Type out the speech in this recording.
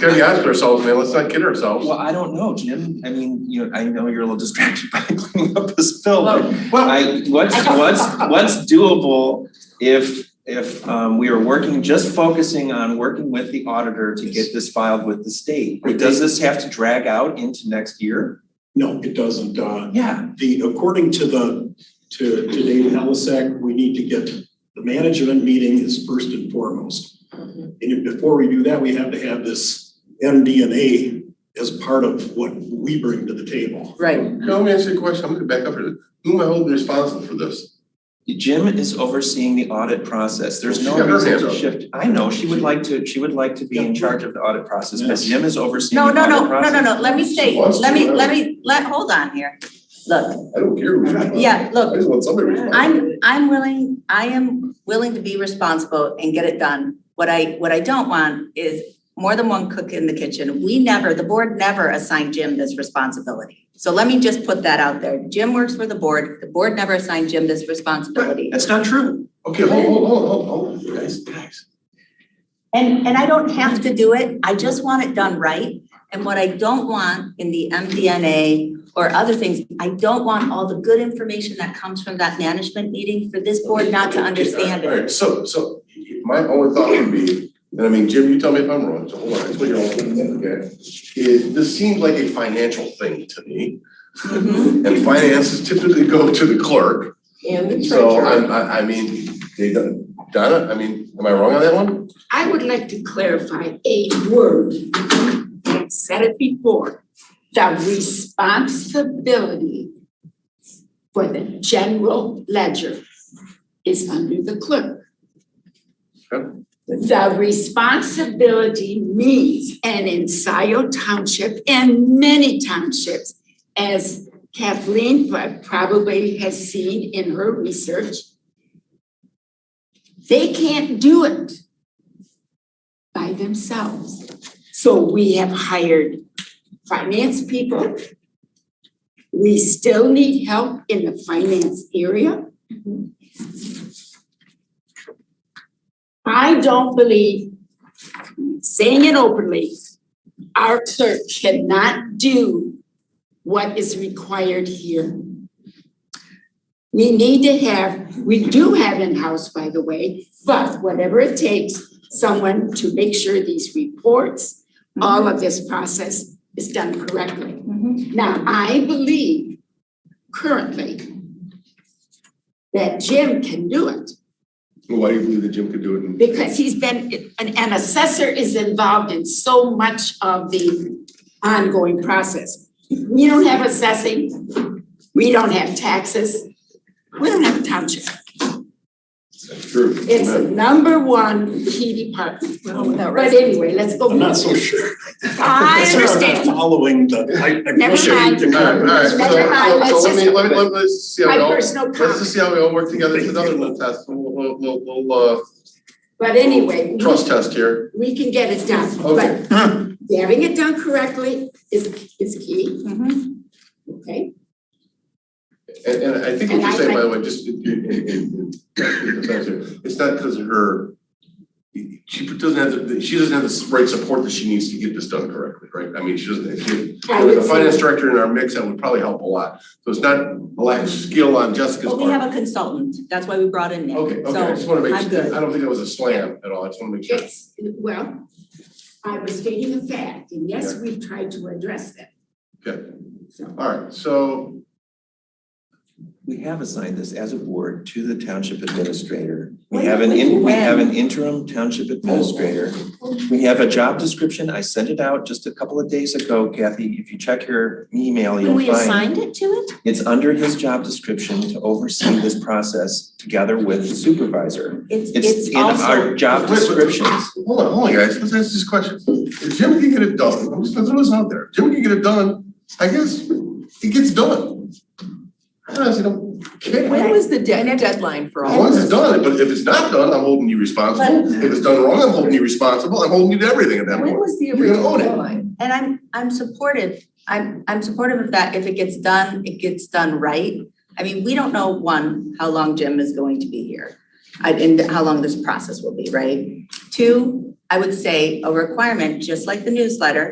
gotta be honest with ourselves, man, let's not kid ourselves. Well, I don't know, Jim, I mean, you know, I know you're a little distracted by cleaning up this bill, but Well, I, what's, what's, what's doable if, if, um, we are working, just focusing on working with the auditor to get this filed with the state? Does this have to drag out into next year? No, it doesn't. Uh, Yeah. the, according to the, to, to Dave Halasek, we need to get, the management meeting is first and foremost. And if- before we do that, we have to have this MDNA as part of what we bring to the table. Right, no, let me ask you a question, I'm gonna back up here, who am I holding responsible for this? Jim is overseeing the audit process, there's no She got her reason hands to up. shift, I know, she would like to, she would like to be in charge of the audit process, but Yes. Jim is overseeing the no, audit no, process. no, no, no, no, let me say, Wants let to, me, uh, let me, let, hold on here. Look, I don't care who's responsible. yeah, I look, just want somebody responsible. I'm, I'm willing, I am willing to be responsible and get it done. What I, what I don't want is more than one cook in the kitchen. We never, the board never assigned Jim this responsibility. So let me just put that out there. Jim works for the board. The board never assigned Jim this responsibility. That's not true. Okay, hold, hold, hold, hold, hold, you guys, guys. And, and I don't have to do it, I just want it done right. And what I don't want in the MDNA or other things, I don't want all the good information that comes from that management meeting for this board not to understand All right, it. so, so my only thought would be, and I mean, Jim, you tell me if I'm wrong, so hold on, I what you're all thinking, okay? Is, this seems like a financial thing to me, Mhm. and finances typically go to the clerk. And the So treasurer. I'm, I, I mean, they done, Donna, I mean, am I wrong on that one? I would like to clarify a word. I said it before, the responsibility for the general ledger is under the clerk. Okay. The responsibility means, and in Scioto Township and many townships, as Kathleen pro- probably has seen in her research, they can't do it by themselves. So we have hired finance people. We still need help in the finance area. I don't believe, saying it openly, our clerk cannot do what is required here. We need to have, we do have in-house, by the way, but whatever it takes, someone to make sure these reports, all of this process is done correctly. Now, I believe currently that Jim can do it Why do you believe that Jim could do it? in- because he's been, an, an assessor is involved in so much of the ongoing process. We don't have assessing, we don't have taxes, we don't have township. That's true. It's the number one key department. But anyway, let's go. I'm not so sure. I I'm understand. Following the, I, I Never appreciate mind. the All right, all comment. right, so, Never mind, so, let's so let me, just- let me, let- let's see how My we all, let's personal just comment. see how we all work together, it's another little test, little, little, little, But anyway, uh, we- trust uh, test here. we can get it done, Okay. Uh-huh. but having it done correctly is, is key, Mhm. okay? And, and I think what And you're I- saying, by the way, just, it- it- it- it- it's- it's not because of her, she doesn't have, the she doesn't have the right support that she needs to get this done correctly, right? I mean, she doesn't, if she, I with would a finance say, director in our mix, that would probably help a lot. So it's not a lack of skill on Jessica's But part. we have a consultant, that's why we brought in Nick. Okay, okay, I just wanna make, So, I'm good. I don't think that was a slam at all, I just wanna make sure. it's, well, I was stating a fact, and yes, we've tried to address that. Okay. So, Alright, so, We have assigned this as a board to the township administrator. We When- have an, in- we when? have an interim township administrator. We have a job description. I sent it out just a couple of days ago, Kathy. If you check your email, you'll find. it to it? It's under his job description to oversee this process together with the supervisor. It's, It's it's in our also, job Wait, wait, wait. descriptions. hold on, hold on, guys, let's ask this question. If Jim can get it done, I'm just gonna throw this out there, Jim can get it done, I guess, it gets done. I honestly don't care, When was the de- deadline for as all long of as it's this? done, but if it's not done, I'm holding you responsible, if it's done wrong, I'm holding you responsible, I'm holding you to everything at that When point. was the You're gonna original own it. deadline? and I'm, I'm supportive, I'm, I'm supportive of that. If it gets done, it gets done right. I mean, we don't know, one, how long Jim is going to be here. I- and how long this process will be, right? Two, I would say a requirement, just like the newsletter,